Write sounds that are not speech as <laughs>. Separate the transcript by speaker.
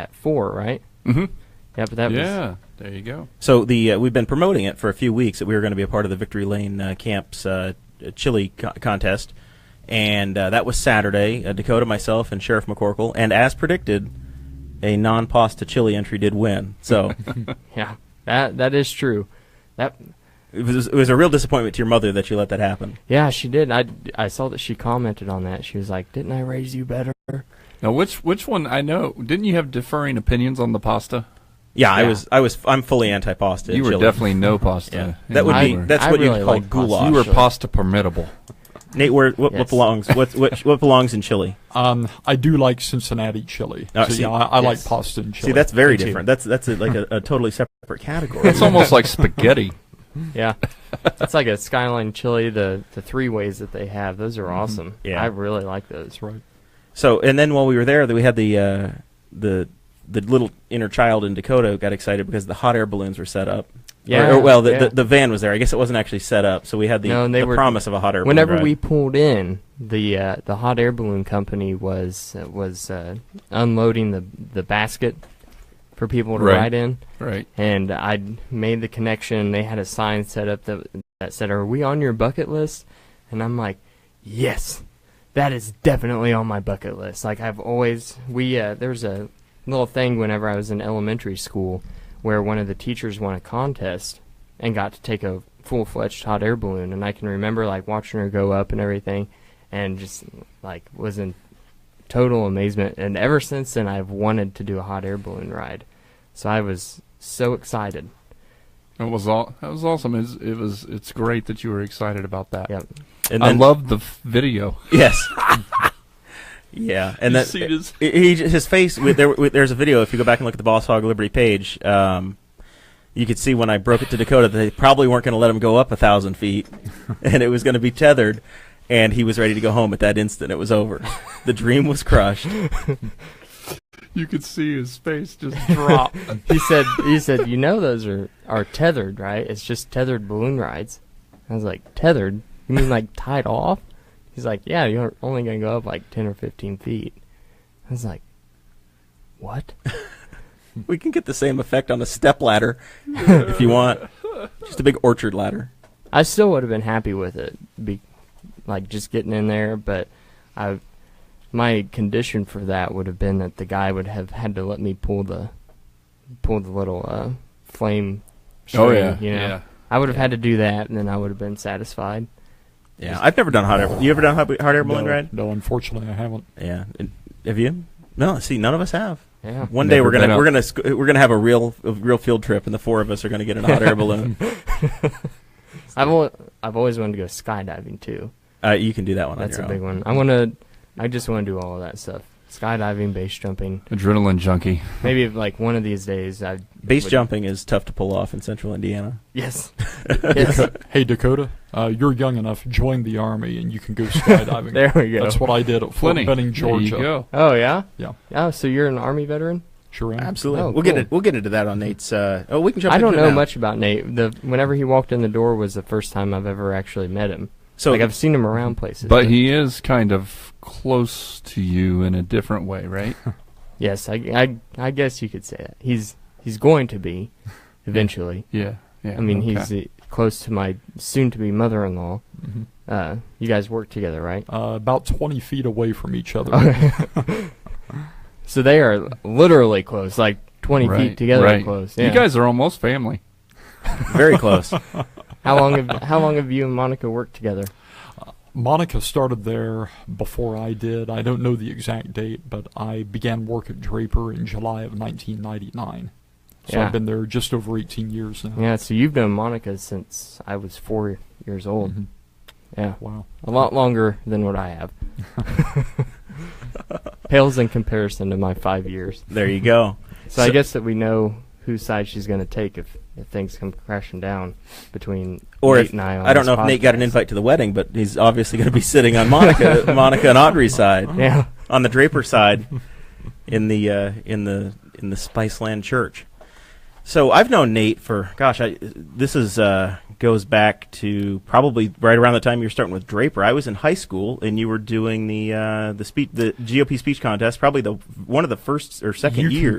Speaker 1: at four, right?
Speaker 2: Mm-hmm.
Speaker 3: hmm
Speaker 1: Yep, that was
Speaker 3: Yeah, there you go.
Speaker 2: So the uh, we've been promoting it for a few weeks that we were going to be a part of the Victory Lane uh, Camp's uh, chili co- contest, and uh, that was Saturday. Uh, Dakota, myself, and Sheriff McCorkle, and as predicted, a non-pasta chili entry did win.
Speaker 3: <laughs>
Speaker 2: So
Speaker 1: yeah. That that is true. That
Speaker 2: it, was, it was a real disappointment to your mother that you let that happen.
Speaker 1: yeah, she did. I I saw that she commented on that. She was like, "Didn't I raise you
Speaker 2: <laughs>
Speaker 1: better?"
Speaker 3: Now, which which one? I know. Didn't you have differing opinions on the pasta?
Speaker 2: Yeah, I
Speaker 1: Yeah.
Speaker 2: was, I was, I'm fully anti-pasta.
Speaker 3: you were
Speaker 2: chili.
Speaker 3: definitely no pasta.
Speaker 2: Yeah.
Speaker 3: You
Speaker 2: That would be
Speaker 1: I-
Speaker 3: were-
Speaker 2: that's
Speaker 1: I
Speaker 2: what
Speaker 1: really
Speaker 2: you'd call
Speaker 1: like pasta.
Speaker 2: goulash.
Speaker 3: you were
Speaker 1: Actually.
Speaker 3: pasta permittable.
Speaker 2: Nate, where what, what
Speaker 1: Yes.
Speaker 2: belongs? What, what what belongs
Speaker 3: <laughs>
Speaker 2: in chili?
Speaker 4: Um, I do like Cincinnati chili.
Speaker 2: Oh,
Speaker 4: so
Speaker 2: see,
Speaker 4: yeah, I, I
Speaker 1: yes.
Speaker 4: like pasta and chili.
Speaker 2: See, that's very
Speaker 4: too.
Speaker 2: different. That's that's a, like a, a totally separate category.
Speaker 3: It's almost like spaghetti.
Speaker 1: Yeah, it's like a skyline chili. The the three ways that they have those are awesome.
Speaker 2: Mm-hmm. Yeah.
Speaker 1: I really like those. Right.
Speaker 2: So, and then while we were there, we had the uh, the the little inner child in Dakota got excited because the hot air balloons were set up.
Speaker 1: Yeah.
Speaker 2: Or, or, well, the,
Speaker 1: yeah.
Speaker 2: the the van was there. I guess it wasn't actually set up, so we had the,
Speaker 1: No, and they
Speaker 2: the
Speaker 1: were-
Speaker 2: promise of a hot air
Speaker 1: Whenever
Speaker 2: balloon.
Speaker 1: we
Speaker 2: ride.
Speaker 1: pulled in, the uh, the hot air balloon company was uh, was uh, unloading the the basket for people to
Speaker 3: Right.
Speaker 1: ride in,
Speaker 3: <laughs> Right.
Speaker 1: and I made the connection. They had a sign set up that that said, "Are we on your bucket list?" And I'm like, "Yes, that is definitely on my bucket list." Like I've always we uh, there's a little thing whenever I was in elementary school where one of the teachers won a contest and got to take a full fledged hot air balloon, and I can remember like watching her go up and everything, and just like was in total amazement. And ever since then, I've wanted to do a hot air balloon ride. So I was so excited.
Speaker 3: It was all. That was awesome. It was, it was. It's great that you were excited about that.
Speaker 1: Yep.
Speaker 2: and
Speaker 3: I
Speaker 2: <laughs>
Speaker 3: love the f- video.
Speaker 2: yes. yeah, and
Speaker 3: You
Speaker 2: that
Speaker 3: see this?
Speaker 2: he- he j- his face. with- there, with- there's a video. If you go back and look at the Boss Hog Liberty page, um, you could see when I broke it to Dakota that they probably weren't going to let him go up a thousand feet, <laughs> and it was going to be tethered, and he was ready to go home at that instant. It was over. The dream was crushed.
Speaker 3: You could see his face <laughs> just drop.
Speaker 1: He said, "He said, you know those are are tethered, right? It's just tethered balloon rides." I was like, "Tethered? You mean like tied off?" He's like, "Yeah, you're only gonna go up like ten or fifteen feet." I was like, "What?"
Speaker 2: <laughs> We can get the same effect on a step ladder <laughs> if you want. Just a big orchard ladder.
Speaker 1: I still would have been happy with it, be, like just getting in there, but I, my condition for that would have been that the guy would have had to let me pull the, pull the little uh, flame. String, you know?
Speaker 3: Oh, Yeah.
Speaker 1: I would have had to do that, and then I would have been satisfied.
Speaker 2: Yeah, I've never done hot air. You ever done hot, hot air balloon
Speaker 4: no,
Speaker 2: ride?
Speaker 4: No, unfortunately, I haven't.
Speaker 2: Yeah. And- Have you? No. See, none of us have.
Speaker 1: Yeah.
Speaker 2: One day
Speaker 3: Never
Speaker 2: we're gonna
Speaker 3: been
Speaker 2: we're
Speaker 3: up.
Speaker 2: gonna sc- we're gonna have a real a real field trip, and the four of us are gonna get in a hot air balloon.
Speaker 1: I've al- I've always wanted to go skydiving too.
Speaker 2: Uh, you can do that one.
Speaker 1: That's
Speaker 2: on
Speaker 1: a
Speaker 2: your
Speaker 1: big
Speaker 2: own.
Speaker 1: one. I want to. I just want to do all of that stuff: skydiving, base jumping.
Speaker 3: Adrenaline junkie.
Speaker 1: Maybe if, like one of these days. I
Speaker 2: Base
Speaker 1: would-
Speaker 2: jumping is tough to pull off in Central Indiana. <laughs>
Speaker 1: Yes. yes.
Speaker 4: Hey, Dakota, uh, you're young enough. Join the army, and you can go
Speaker 1: <laughs>
Speaker 4: skydiving.
Speaker 1: There we go.
Speaker 4: That's what I did at Fort
Speaker 3: Plenty.
Speaker 4: Benning, Georgia.
Speaker 3: There you go.
Speaker 1: Oh yeah.
Speaker 4: Yeah.
Speaker 1: Oh, so you're an army veteran?
Speaker 4: Sure am.
Speaker 5: Absolutely.
Speaker 1: Oh,
Speaker 5: we'll get
Speaker 1: cool.
Speaker 5: it. We'll get into that on Nate's. Uh, oh, we can jump.
Speaker 1: I don't
Speaker 5: into it
Speaker 1: know
Speaker 5: now.
Speaker 1: much about Nate. The whenever he walked in the door was the first time I've ever actually met him.
Speaker 2: So
Speaker 5: <laughs>
Speaker 1: like I've seen him around places.
Speaker 3: But he is kind of close to you in a different way,
Speaker 2: <laughs>
Speaker 3: right?
Speaker 1: Yes, I, I, I guess you could say that. He's he's going to
Speaker 2: <laughs>
Speaker 1: be eventually.
Speaker 3: Yeah. Yeah.
Speaker 1: I mean,
Speaker 3: okay.
Speaker 1: he's uh, close to my soon-to-be mother-in-law.
Speaker 4: Mhm.
Speaker 1: Uh, you guys work together,
Speaker 3: <laughs>
Speaker 1: right?
Speaker 4: Uh, about 20 feet away from each other.
Speaker 1: so they are literally close, like 20
Speaker 3: Right,
Speaker 1: feet together
Speaker 3: right.
Speaker 1: close. Yeah.
Speaker 3: You guys are almost family.
Speaker 2: very close.
Speaker 1: how long have how long have you and Monica worked together?
Speaker 4: Monica started there before I did. I don't know the exact date, but I began work at Draper in July of 1999. So
Speaker 1: Yeah.
Speaker 4: I've been there just over 18 years now.
Speaker 1: Yeah, so you've known Monica since I was 4 years old.
Speaker 4: Mhm.
Speaker 3: Mm-hmm.
Speaker 1: Yeah.
Speaker 4: Wow.
Speaker 1: A lot longer than what I
Speaker 3: <laughs>
Speaker 1: have. <laughs> Pales in comparison to my five years.
Speaker 2: there you go.
Speaker 1: So, I
Speaker 2: So-
Speaker 1: guess that we know whose side she's going to take if, if things come crashing down between
Speaker 2: Or
Speaker 1: Nate
Speaker 2: if,
Speaker 1: and I. On
Speaker 2: I don't
Speaker 1: this
Speaker 2: know if Uh, Nate got an
Speaker 1: podcast.
Speaker 2: invite to the wedding, but he's obviously going to be sitting on <laughs> Monica, Monica and Audrey's side,
Speaker 1: Yeah.
Speaker 2: on the Draper side, in the uh, in the in the Spiceland Church. So I've known Nate for gosh, I, this is uh, goes back to probably right around the time you were starting with Draper. I was in high school, and you were doing the uh, the speech the GOP speech contest, probably the one of the first or second
Speaker 4: You
Speaker 2: years.